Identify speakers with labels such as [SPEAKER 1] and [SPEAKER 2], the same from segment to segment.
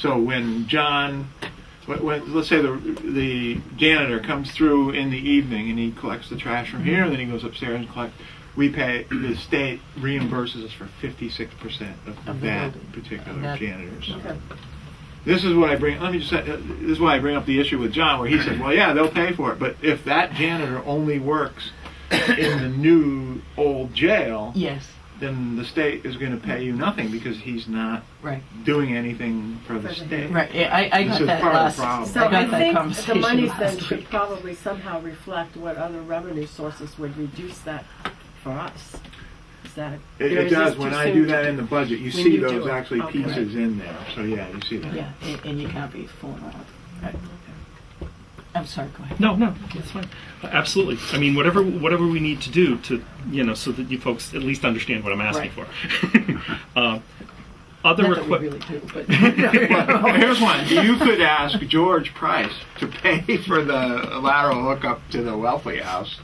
[SPEAKER 1] So when John, when, when, let's say the the janitor comes through in the evening and he collects the trash from
[SPEAKER 2] Mm-hmm.
[SPEAKER 1] here, and then he goes upstairs and collects. We pay the state reimburses us for fifty six percent of
[SPEAKER 2] Of the
[SPEAKER 1] that
[SPEAKER 2] building.
[SPEAKER 1] particular
[SPEAKER 2] That-
[SPEAKER 1] janitor's.
[SPEAKER 2] Okay.
[SPEAKER 1] This is what I bring. Let me just. Say, uh, this is why I bring up the issue with John, where he said, "Well, yeah, they'll pay for it, but if that janitor only works in the new old jail,
[SPEAKER 2] Yes,
[SPEAKER 1] then the state is going to pay you nothing because he's not
[SPEAKER 2] right,
[SPEAKER 1] doing anything for the
[SPEAKER 3] For the-
[SPEAKER 1] state."
[SPEAKER 2] right. Yeah, I, I
[SPEAKER 1] This
[SPEAKER 2] got
[SPEAKER 1] is
[SPEAKER 2] that
[SPEAKER 1] part of
[SPEAKER 2] last.
[SPEAKER 1] the problem.
[SPEAKER 3] So
[SPEAKER 2] I got
[SPEAKER 3] I
[SPEAKER 2] that
[SPEAKER 3] think the
[SPEAKER 2] conversation
[SPEAKER 3] monies then
[SPEAKER 2] last
[SPEAKER 3] should
[SPEAKER 2] week.
[SPEAKER 3] probably somehow reflect what other revenue sources would reduce that for us. Is that?
[SPEAKER 1] It,
[SPEAKER 3] or
[SPEAKER 1] it
[SPEAKER 3] is this
[SPEAKER 1] does.
[SPEAKER 3] too
[SPEAKER 1] When I
[SPEAKER 3] soon
[SPEAKER 1] do
[SPEAKER 3] to
[SPEAKER 1] that in the budget, you
[SPEAKER 3] When
[SPEAKER 1] see
[SPEAKER 3] you do
[SPEAKER 1] those
[SPEAKER 3] it.
[SPEAKER 1] actually
[SPEAKER 3] Okay.
[SPEAKER 1] pieces in there. So yeah, you see that.
[SPEAKER 2] Yeah, and, and you can't be fooling around. I- I'm sorry. Go ahead.
[SPEAKER 4] No, no, that's fine. Absolutely. I mean, whatever whatever we need to do to you know so that you folks at least understand what I'm asking for. uh, other
[SPEAKER 2] Not that we
[SPEAKER 4] requi-
[SPEAKER 2] really do, but
[SPEAKER 1] Well, here's one. You could ask George Price to pay for the lateral hookup to the wealthy house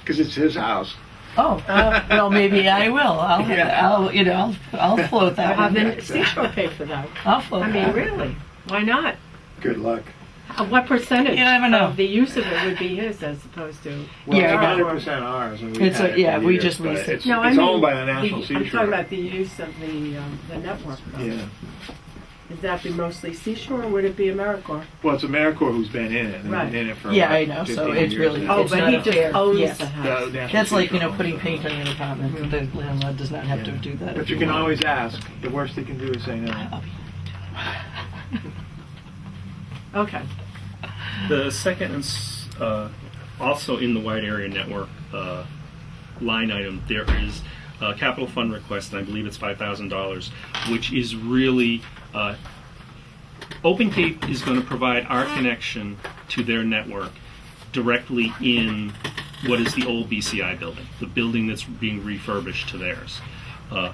[SPEAKER 1] because it's his house.
[SPEAKER 2] oh, uh, well, maybe I will. I'll,
[SPEAKER 1] Yeah.
[SPEAKER 2] I'll, you know, I'll, I'll float
[SPEAKER 3] Or
[SPEAKER 2] that
[SPEAKER 3] have
[SPEAKER 2] one.
[SPEAKER 3] the seashore pay for that?
[SPEAKER 2] I'll float
[SPEAKER 3] I mean,
[SPEAKER 2] that.
[SPEAKER 3] really, why not?
[SPEAKER 1] Good luck.
[SPEAKER 3] Uh, What percentage
[SPEAKER 2] You never know.
[SPEAKER 3] of the use of it would be his as opposed to?
[SPEAKER 1] Well,
[SPEAKER 2] Yeah,
[SPEAKER 1] yeah,
[SPEAKER 2] I got
[SPEAKER 1] it's
[SPEAKER 2] it.
[SPEAKER 1] 100 percent ours. And we
[SPEAKER 2] It's a- yeah, we just leased it.
[SPEAKER 1] It's,
[SPEAKER 3] No, I
[SPEAKER 1] it's
[SPEAKER 3] mean
[SPEAKER 1] owned by the National
[SPEAKER 3] the- I'm
[SPEAKER 1] Seashore.
[SPEAKER 3] talking about the use of the, um, the network. though.
[SPEAKER 1] yeah.
[SPEAKER 3] Is that be mostly seashore or would it be AmeriCorps?
[SPEAKER 1] Well, it's AmeriCorps who's been in it. and
[SPEAKER 3] Right.
[SPEAKER 1] been in it for
[SPEAKER 2] Yeah,
[SPEAKER 1] like
[SPEAKER 2] I know, so
[SPEAKER 1] 15
[SPEAKER 2] it's
[SPEAKER 1] years
[SPEAKER 2] really-
[SPEAKER 1] now.
[SPEAKER 3] Oh,
[SPEAKER 2] It's
[SPEAKER 3] but
[SPEAKER 2] not
[SPEAKER 3] he
[SPEAKER 2] a
[SPEAKER 3] just
[SPEAKER 2] fair-
[SPEAKER 3] owns
[SPEAKER 2] yes.
[SPEAKER 3] the
[SPEAKER 1] The
[SPEAKER 3] house.
[SPEAKER 1] National
[SPEAKER 2] That's like you
[SPEAKER 1] Seashore
[SPEAKER 2] know putting
[SPEAKER 1] owns it.
[SPEAKER 2] paint on your apartment. The landlord does not have to do that.
[SPEAKER 1] But
[SPEAKER 2] if
[SPEAKER 1] you can
[SPEAKER 2] want.
[SPEAKER 1] always ask. The worst they can do is say no.
[SPEAKER 3] Okay.
[SPEAKER 4] The second is uh, also in the wide area network uh, line item. There is a capital fund request, and I believe it's five thousand dollars, which is really uh, Open Cape is going to provide our connection to their network directly in what is the old BCI building, the building that's being refurbished to theirs. Uh,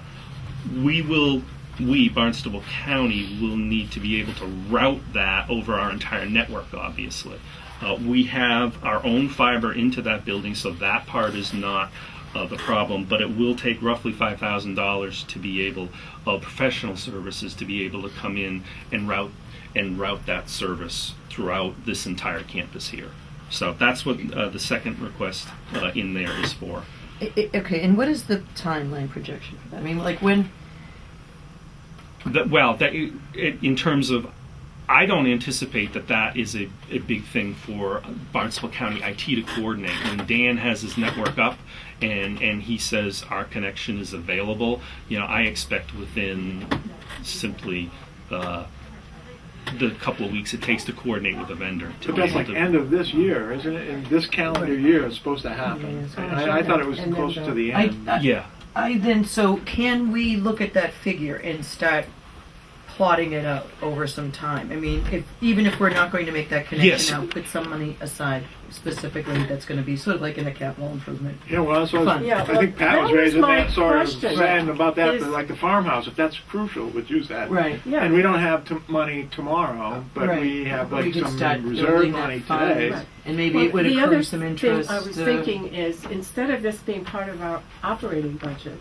[SPEAKER 4] we will, we, Barnstable County, will need to be able to route that over our entire network, obviously. Uh, we have our own fiber into that building, so that part is not uh, the problem, but it will take roughly $5,000 to be able, uh, professional services to be able to come in and route and route that service throughout this entire campus here. So that's what uh, the second request uh, in there is for.
[SPEAKER 2] I- I- Okay, and what is the timeline projection for that? I mean, like when?
[SPEAKER 4] That, well, that i- it, in terms of, I don't anticipate that that is a, a big thing for Barnstable County IT to coordinate. When Dan has his network up and, and he says our connection is available, you know, I expect within simply uh, the couple of weeks it takes to coordinate with a vendor. To
[SPEAKER 1] But
[SPEAKER 4] be
[SPEAKER 1] that's
[SPEAKER 4] able
[SPEAKER 1] like
[SPEAKER 4] to-
[SPEAKER 1] end of this year, isn't it? In this calendar year, it's supposed to happen.
[SPEAKER 2] Yes.
[SPEAKER 1] And I, I thought it was
[SPEAKER 3] And then
[SPEAKER 1] closer to
[SPEAKER 3] the-
[SPEAKER 1] the
[SPEAKER 2] I,
[SPEAKER 1] end.
[SPEAKER 2] I,
[SPEAKER 4] yeah.
[SPEAKER 2] I then so can we look at that figure and start plotting it out over some time? I mean, if even if we're not going to make that connection
[SPEAKER 4] Yes.
[SPEAKER 2] now, put some money aside specifically that's going to be sort of like in a capital improvement.
[SPEAKER 1] Yeah, well, that's what I, was-
[SPEAKER 3] Yeah,
[SPEAKER 1] I
[SPEAKER 3] well,
[SPEAKER 1] think Pat
[SPEAKER 3] that
[SPEAKER 1] was
[SPEAKER 3] was
[SPEAKER 1] raising
[SPEAKER 3] my
[SPEAKER 1] that sort of
[SPEAKER 3] question.
[SPEAKER 1] saying about that,
[SPEAKER 3] Is-
[SPEAKER 1] but like the farmhouse, if that's crucial, would use that.
[SPEAKER 2] Right.
[SPEAKER 3] Yeah.
[SPEAKER 1] And we don't have t- money tomorrow, but
[SPEAKER 2] Right.
[SPEAKER 1] we have
[SPEAKER 2] we
[SPEAKER 1] like
[SPEAKER 2] could start
[SPEAKER 1] some reserve
[SPEAKER 2] building that
[SPEAKER 1] money
[SPEAKER 2] fund,
[SPEAKER 1] today.
[SPEAKER 3] Right.
[SPEAKER 2] and maybe
[SPEAKER 3] Well,
[SPEAKER 2] it would
[SPEAKER 3] the
[SPEAKER 2] accrue
[SPEAKER 3] other
[SPEAKER 2] some
[SPEAKER 3] thing
[SPEAKER 2] interest.
[SPEAKER 3] I was
[SPEAKER 2] uh,
[SPEAKER 3] thinking is, instead of this being part of our operating budget,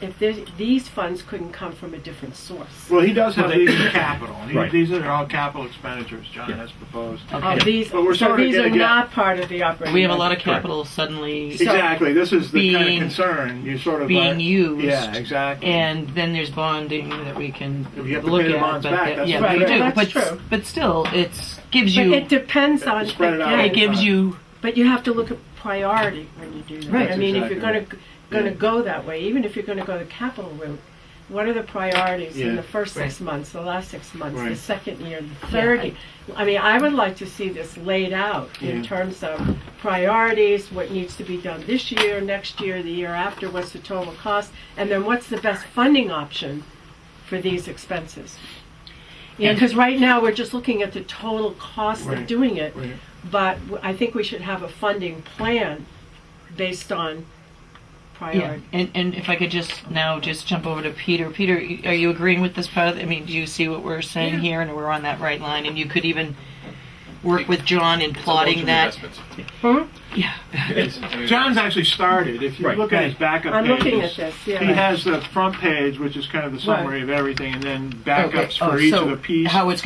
[SPEAKER 3] if there's- these funds couldn't come from a different source.
[SPEAKER 1] Well, he does have
[SPEAKER 4] Well, they-
[SPEAKER 1] these in capital. He-
[SPEAKER 4] Right.
[SPEAKER 1] These are all capital expenditures John
[SPEAKER 4] Yeah.
[SPEAKER 1] has proposed.
[SPEAKER 2] Okay.
[SPEAKER 3] Uh, These,
[SPEAKER 1] But we're
[SPEAKER 3] so
[SPEAKER 1] sorta
[SPEAKER 3] these
[SPEAKER 1] gonna
[SPEAKER 3] are
[SPEAKER 1] get-
[SPEAKER 3] not part of the operating.
[SPEAKER 2] We have a lot of
[SPEAKER 3] budget.
[SPEAKER 2] capital suddenly,
[SPEAKER 3] So-
[SPEAKER 1] Exactly, this is the kind of
[SPEAKER 2] Being-
[SPEAKER 1] concern, you sort of.
[SPEAKER 2] being
[SPEAKER 1] are-
[SPEAKER 2] used
[SPEAKER 1] Yeah, exactly.
[SPEAKER 2] and then there's bonding that we can
[SPEAKER 1] You have to
[SPEAKER 2] look
[SPEAKER 1] pay the
[SPEAKER 2] at.
[SPEAKER 1] bonds
[SPEAKER 2] but
[SPEAKER 1] back,
[SPEAKER 2] that-
[SPEAKER 1] that's
[SPEAKER 2] yeah,
[SPEAKER 1] what
[SPEAKER 2] we
[SPEAKER 1] I'm
[SPEAKER 2] do.
[SPEAKER 1] saying.
[SPEAKER 3] That's
[SPEAKER 2] but
[SPEAKER 3] true.
[SPEAKER 2] but still, it gives
[SPEAKER 3] But
[SPEAKER 2] you.
[SPEAKER 3] it depends on,
[SPEAKER 1] Spread it out.
[SPEAKER 3] again,
[SPEAKER 2] it gives you
[SPEAKER 3] But you have to look at priority when you do that.
[SPEAKER 2] Right.
[SPEAKER 3] I mean, if you're going
[SPEAKER 1] That's
[SPEAKER 3] to going to go that way, even if you're going to go the capital route, what are the priorities in
[SPEAKER 1] Yeah.
[SPEAKER 3] the first six months, the last six months, the
[SPEAKER 1] Right.
[SPEAKER 3] second year, the third
[SPEAKER 2] I-
[SPEAKER 3] year? I mean, I would like to see this laid out in
[SPEAKER 1] Yeah.
[SPEAKER 3] terms of priorities, what needs to be done this year, next year, the year after, what's the total cost, and then what's the best funding option for these expenses. Yeah,
[SPEAKER 2] And-
[SPEAKER 3] because right now we're just looking at the total cost
[SPEAKER 1] Right.
[SPEAKER 3] of doing it,
[SPEAKER 1] Right.
[SPEAKER 3] but w- I think we should have a funding plan based on
[SPEAKER 2] Yeah,
[SPEAKER 3] priority.
[SPEAKER 2] and, and if I could just now just jump over to Peter. Peter, y- are you agreeing with this part? of the- I mean, do you see what we're saying
[SPEAKER 3] Yeah.
[SPEAKER 2] here, and we're on that right line? And you could even work with John in
[SPEAKER 5] It's a
[SPEAKER 2] plotting
[SPEAKER 5] long-term
[SPEAKER 2] that.
[SPEAKER 5] investment.
[SPEAKER 3] Hmm? Yeah.
[SPEAKER 1] It's- John's actually started. If you
[SPEAKER 4] Right.
[SPEAKER 1] look at his backup
[SPEAKER 3] I'm looking
[SPEAKER 1] pages,
[SPEAKER 3] at this, yeah.
[SPEAKER 1] He has the front page, which is kind of the summary of everything, and then backups
[SPEAKER 2] Okay, oh,
[SPEAKER 1] for each
[SPEAKER 2] so
[SPEAKER 1] of the pieces.
[SPEAKER 2] How it's